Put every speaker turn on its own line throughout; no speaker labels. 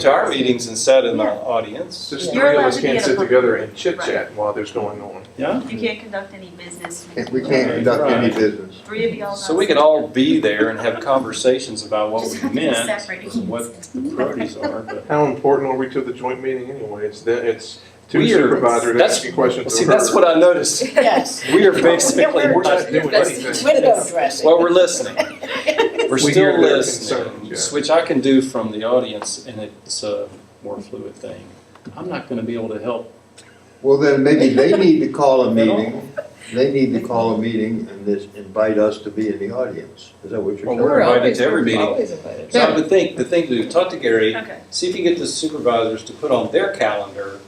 to our meetings and sat in the audience.
Just
You're
three of
allowed
us
to
can't
be at a
sit
public
together
meeting.
and chit chat while there's going on.
You can't conduct any business.
Can't- We can't conduct any business.
Three of y'all.
So we could all be there and have conversations about what
Just
we
have to be
meant,
separate.
and what the priorities are, but.
How important are we to the joint meeting anyway? It's, the- it's two
We are-
supervisors
that's-
asking questions
Well,
to
see, that's
her.
what I noticed.
Yes.
We are basically,
We're not doing anything.
Window dressing.
well, we're listening. We're
We
still
hear their
listening,
concerns, yeah.
which I can do from the audience, and it's a more fluid thing. I'm not gonna be able to help.
Well, then maybe they need to call a meeting, they need to call a meeting and this, invite us to be in the audience. Is that what
Well,
you're
we're
saying?
invited to every meeting.
Always invited.
So I would think, the thing to do, talk to Gary,
Okay.
see if you get the supervisors to put on their calendar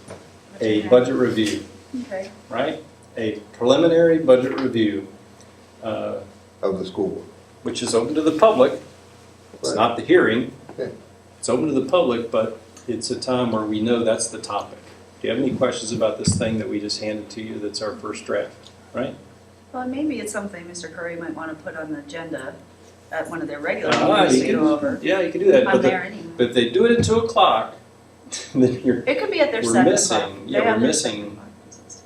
a budget review,
Okay.
right? A preliminary budget review, uh,
Of the school board.
which is open to the public. It's
Right.
not the hearing.
Okay.
It's open to the public, but it's a time where we know that's the topic. Do you have any questions about this thing that we just handed to you that's our first draft, right?
Well, maybe it's something Mr. Curry might want to put on the agenda at one of their regular
Ah,
meetings
you
to go over.
can- Yeah, you can do that,
I'm
but, the-
there anyway.
but if they do it at two o'clock, then you're
It could be at their
We're
seven
missing-
o'clock.
yeah,
They
we're
have their
missing-
seven o'clock business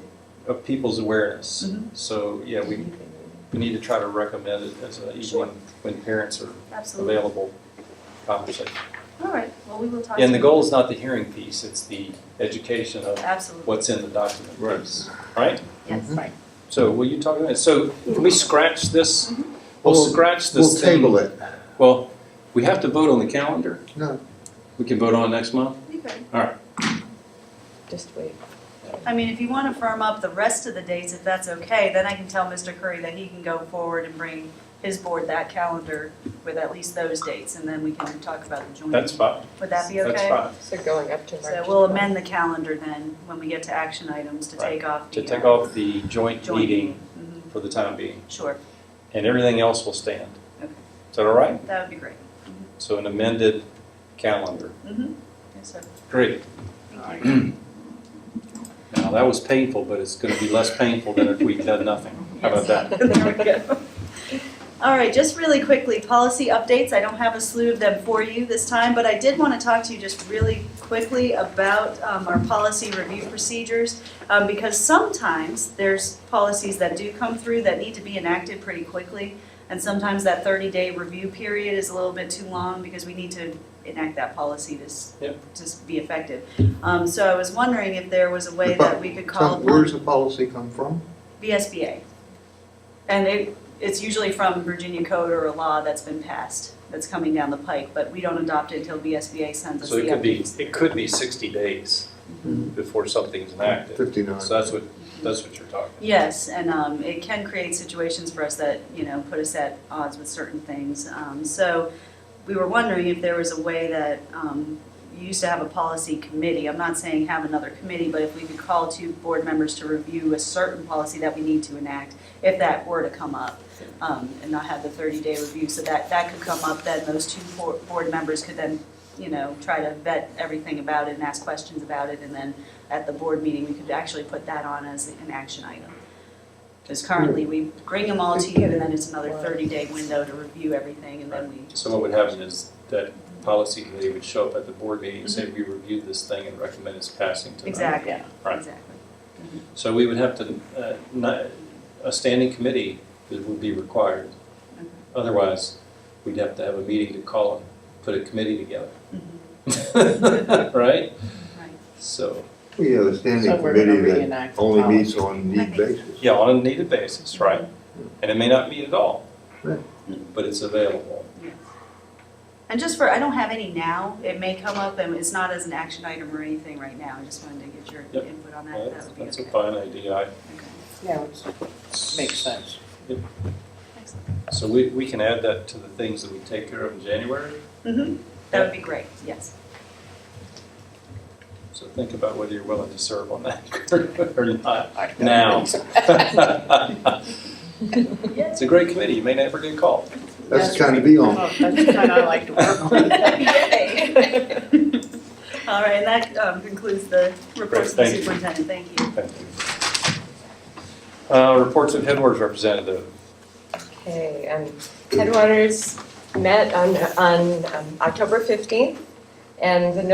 too.
of people's awareness.
Mhm.
So, yeah, we, we need to try to recommend it as an
Sure.
evening when parents are
Absolutely.
available conversation.
All right, well, we will talk.
And
to
the
you.
goal is not the hearing piece, it's the education of
Absolutely,
what's in the document
Right.
piece, right?
Mm-hmm.
yes.
So will you talk about it? So can we scratch this?
Mhm.
We'll
Well,
scratch
We'll
this thing.
table it.
Well, we have to vote on the calendar.
No.
We can vote on it next month?
Okay.
Just wait.
I mean, if you want to firm up the rest of the dates, if that's okay, then I can tell Mr. Curry that he can go forward and bring his board that calendar with at least those dates, and then we can talk about the joint.
That's fine.
Would that be okay?
That's fine.
So going up to March.
So we'll amend the calendar then, when we get to action items, to
Right.
take off the. uh,
To take off the joint
Joint.
meeting
Mhm.
for the time being,
Sure,
and everything else will stand.
Okay.
Is that all right?
that would be great.
So an amended calendar.
Mhm. Yes, sir.
Great.
Thank
Now, that was painful, but it's going to be less painful than if we'd done nothing. How about that?
There we go. All right, just really quickly, policy updates. I don't have a slew of them for you this time, but I did want to talk to you just really quickly about um, our policy review procedures. um, Because sometimes there's policies that do come through that need to be enacted pretty quickly. And sometimes that 30-day review period is a little bit too long because we need to enact that policy to, s-
Yep.
to s- be effective. Um, So I was wondering if there was a way that we could call
Tell-
upon.
Where's the policy come from?
VSBA. And it, it's usually from Virginia code or a law that's been passed, that's coming down the pike, but we don't adopt it until VSBA sends us
So
the Mm-hmm.
it could be,
updates.
it could be 60 days before something's enacted.
Fifty-nine.
So that's what, that's what you're talking about.
Yes, and um, it can create situations for us that, you know, put us at odds with certain things. Um, So we were wondering if there was a way that um, you used to have a policy committee. I'm not saying have another committee, but if we could call two board members to review a certain policy that we need to enact, if that were to come up, um, and not have the 30-day review. So that, that could come up, then those two bo- board members could then, you know, try to vet everything about it and ask questions about it. And then at the board meeting, we could actually put that on as an action item. Because currently, we bring them all to you, and then it's another 30-day window to review everything, and then we
So what would happen is that policy committee would show up at the board meeting and say, we reviewed this thing and recommend its passing tonight.
Mm-hmm. Exactly,
Right.
exactly.
So we would have to, uh, not- a standing committee that would be required.
Okay.
Otherwise, we'd have to have a meeting to call and put a committee together. Right?
Mm-hmm. Right.
So,
We have a standing
So we're gonna
committee that
reenact the
only
policy.
meets on need basis.
yeah, on a needed basis, right? And it may not meet at all.
Right.
But it's available.
And just for, I don't have any now, it may come up, and it's not as an action item or anything right now, I just wanted to get your
Yep.
input on that, if
That's
that would be
that's a
okay.
fine idea. I-
Okay.
Yeah, which makes sense.
Excellent.
So we, we can add that to the things that we take care of in January.
Mhm. That would be great, yes.
So think about whether you're willing to serve on that or not
I don't
now.
think so.
It's a great committee. You may never get called.
That's the kind to be on.
Oh, That's the kind I like to work on.
Yay. All right, and that um, concludes the report
Great,
from the
thank you.
superintendent, thank you.
Thank you. Uh, Reports of headwaters representative.
Okay, um, Headwaters met on, on um, October 15th, and the